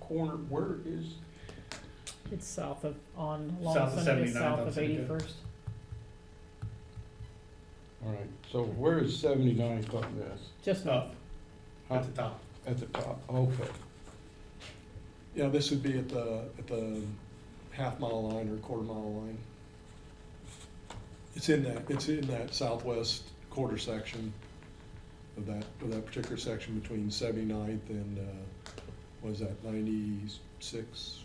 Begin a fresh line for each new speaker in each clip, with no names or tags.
corner, where is,
It's south of, on
South
Long
of
Sunday,
79th,
south
on
of
Sunday.
eighty-first.
all right, so where is seventy-nine Cotton Ave?
Just north.
Up, at the top.
At the top, okay.
Yeah, this would be at the, at the half mile line or quarter mile line. It's in that, it's in that southwest quarter section of that, of that particular section between 79th and, uh, what is that, ninety-six?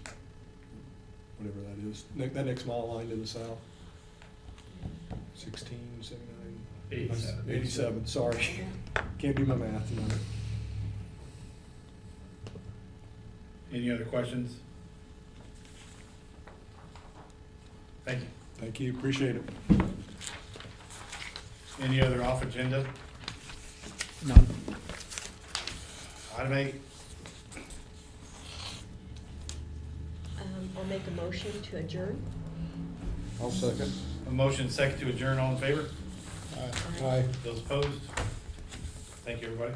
Whatever that is, Ne- that next mile line to the south. Sixteen, seventy-nine?
Eighty-seven.
Eighty-seven, sorry. Can't do my math tonight.
Any other questions? Thank you.
Thank you, appreciate it.
Any other off agenda?
None.
Item eight,
Um, I'll make a motion to adjourn.
I'll second.
a motion second to adjourn, all in favor?
Aye.
Those opposed? Thank you, everybody.